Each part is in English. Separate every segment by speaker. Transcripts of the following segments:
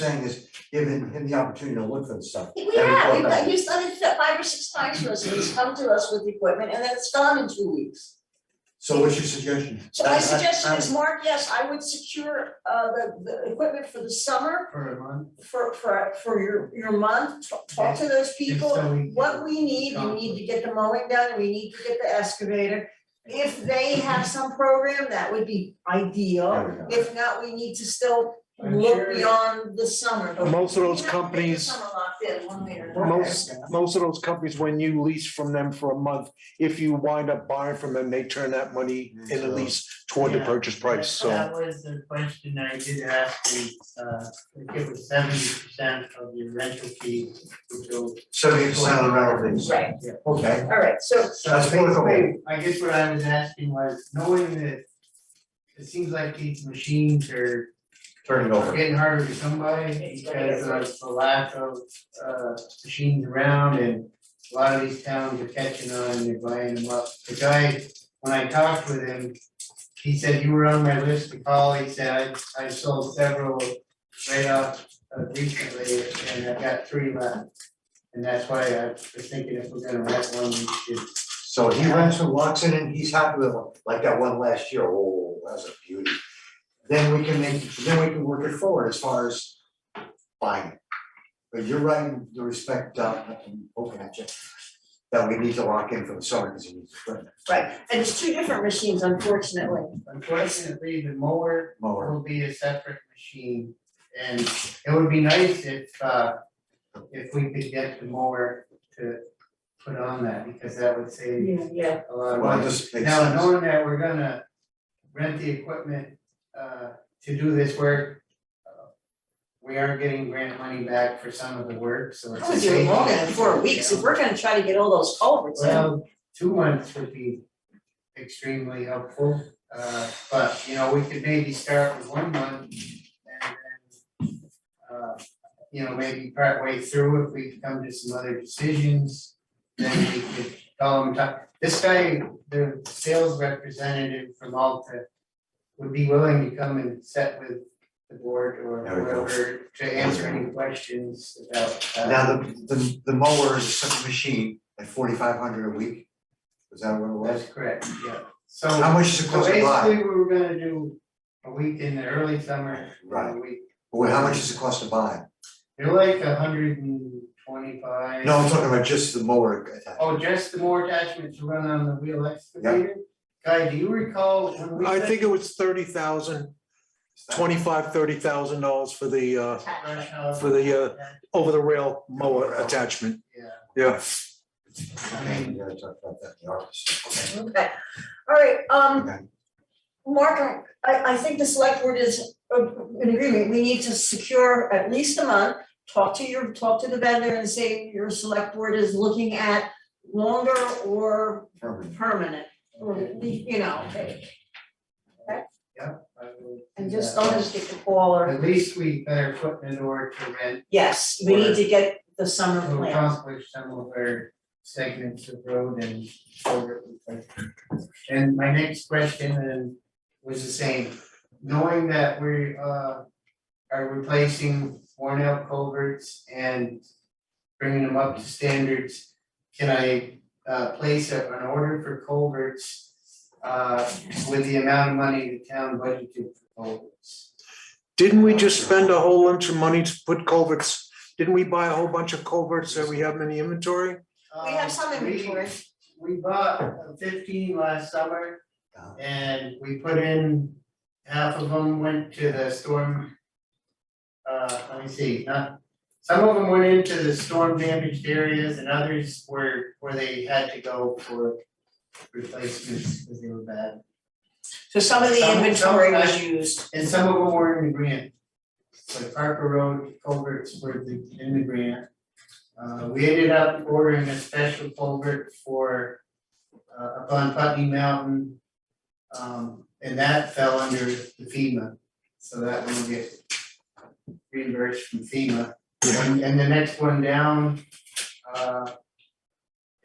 Speaker 1: saying is giving him the opportunity to look for the stuff.
Speaker 2: We have, we've got, you've done it five or six times for us, and he's come to us with the equipment, and then it's gone in two weeks.
Speaker 1: So what's your suggestion?
Speaker 2: So my suggestion is, Mark, yes, I would secure, uh, the, the equipment for the summer,
Speaker 3: for a month.
Speaker 2: for, for, for your, your month, t- talk to those people.
Speaker 3: so we-
Speaker 2: What we need, we need to get the mowing done, we need to get the excavator. If they have some program, that would be ideal.
Speaker 1: There we go.
Speaker 2: If not, we need to still
Speaker 3: I'm
Speaker 2: look
Speaker 3: sure-
Speaker 2: beyond the summer, but.
Speaker 4: Most of those
Speaker 2: We have to get the
Speaker 4: companies-
Speaker 2: Summer locked in one way or another.
Speaker 4: Most, most of those companies, when you lease from them for a month, if you wind up buying from them, they turn that money in the lease toward the
Speaker 3: Yeah.
Speaker 4: purchase price, so.
Speaker 3: That was the question I did ask, the, uh, if it was seventy percent of your rental fee to go.
Speaker 1: Seventy percent of the rental fees,
Speaker 2: Right,
Speaker 1: okay,
Speaker 2: all right, so
Speaker 3: So
Speaker 1: That's workable.
Speaker 3: basically, I guess what I was asking was, knowing that it seems like these machines are
Speaker 1: turn it over.
Speaker 3: getting harder to come by
Speaker 2: It's gonna
Speaker 3: because
Speaker 2: get
Speaker 3: of the lack of uh machines around and a lot of these towns are catching on and they're buying them up. The guy, when I talked with him, he said you were on my list to call, he said I I sold several right off uh, recently and I've got three left. And that's why I was thinking if we're gonna rent one, we should.
Speaker 1: So he rents and locks it in, he's happy with it, like that one last year, oh, that's a beauty. Then we can make, then we can work it forward as far as buying it. But you're right, in the respect, uh, I'm poking at you, that we need to lock in for the summer, because he needs to put
Speaker 2: Right, and it's two different machines, unfortunately.
Speaker 3: Unfortunately, the mower
Speaker 1: mower.
Speaker 3: will be a separate machine. And it would be nice if uh if we could get the mower to put on that because that would save
Speaker 2: Yeah.
Speaker 3: a lot of
Speaker 1: Well, it
Speaker 3: money.
Speaker 1: just makes
Speaker 3: Now,
Speaker 1: sense.
Speaker 3: knowing that we're gonna rent the equipment uh to do this work. uh, We are getting grant money back for some of the work, so it's.
Speaker 2: I was doing longer than four weeks, if we're gonna try to get all those culverts in.
Speaker 3: Well, two months would be extremely helpful, uh, but, you know, we could maybe start with one month and then, uh, you know, maybe partway through, if we come to some other decisions, then we could call him, talk. This guy, the sales representative from Alta would be willing to come and sit with the board or
Speaker 1: There we go.
Speaker 3: whoever to answer any questions about, uh,
Speaker 1: Now, the, the, the mower is a separate machine at forty-five hundred a week, is that what it was?
Speaker 3: That's correct, yeah, so.
Speaker 1: How much does it
Speaker 3: So
Speaker 1: cost to buy?
Speaker 3: basically, we were gonna do a week in the early summer,
Speaker 1: Right.
Speaker 3: a week,
Speaker 1: Well, how much does it cost to buy?
Speaker 3: they're like a hundred and twenty-five.
Speaker 1: No, I'm talking about just the mower.
Speaker 3: Oh, just the more attachment to run on the wheel excavator? Guy, do you recall when we?
Speaker 4: I
Speaker 3: did
Speaker 4: think it was thirty thousand, twenty-five, thirty thousand dollars for the, uh,
Speaker 3: brush hog?
Speaker 4: for the, uh, over the rail mower attachment.
Speaker 3: Yeah,
Speaker 4: Yeah,
Speaker 1: Okay, you gotta talk about that in the office. Okay.
Speaker 2: Okay, all right, um,
Speaker 1: Okay.
Speaker 2: Mark, I, I think the select board is uh, in agreement, we need to secure at least a month. Talk to your, talk to the vendor and say your select board is looking at longer or
Speaker 1: Permanent.
Speaker 2: permanent, or, you know,
Speaker 3: yeah, I will.
Speaker 2: and
Speaker 3: do
Speaker 2: just
Speaker 3: that.
Speaker 2: don't just get the call or,
Speaker 3: At least we better put in an order to rent,
Speaker 2: yes, we need to get the summer
Speaker 3: to
Speaker 2: plan.
Speaker 3: accomplish some of our segments of road and. shoulder replacement. And my next question then was the same, knowing that we uh are replacing worn out culverts and bringing them up to standards, can I uh place a- an order for culverts uh with the amount of money the town budgeted for culverts?
Speaker 4: didn't we just spend a whole bunch of money to put culverts? Didn't we buy a whole bunch of culverts that we have in the inventory?
Speaker 2: We have some
Speaker 3: Um, we-
Speaker 2: inventory.
Speaker 3: we bought fifteen last summer.
Speaker 1: Yeah.
Speaker 3: And we put in, half of them went to the storm. Uh, let me see, not, some of them went into the storm damaged areas and others were where they had to go for replacements because they were bad.
Speaker 2: So some of the
Speaker 3: Some-
Speaker 2: inventory
Speaker 3: some-
Speaker 2: was used.
Speaker 3: And some of them were in the grant. Like Parker Road culverts were the, in the grant. Uh, we ended up ordering a special culvert for, uh, up on Putney Mountain. Um, and that fell under the FEMA, so that one will get reimbursed from FEMA. And, and the next one down, uh,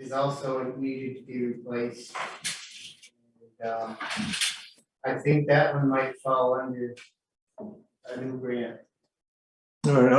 Speaker 3: is also needed to be replaced. And, um, I think that one might fall under a new grant.
Speaker 4: All right,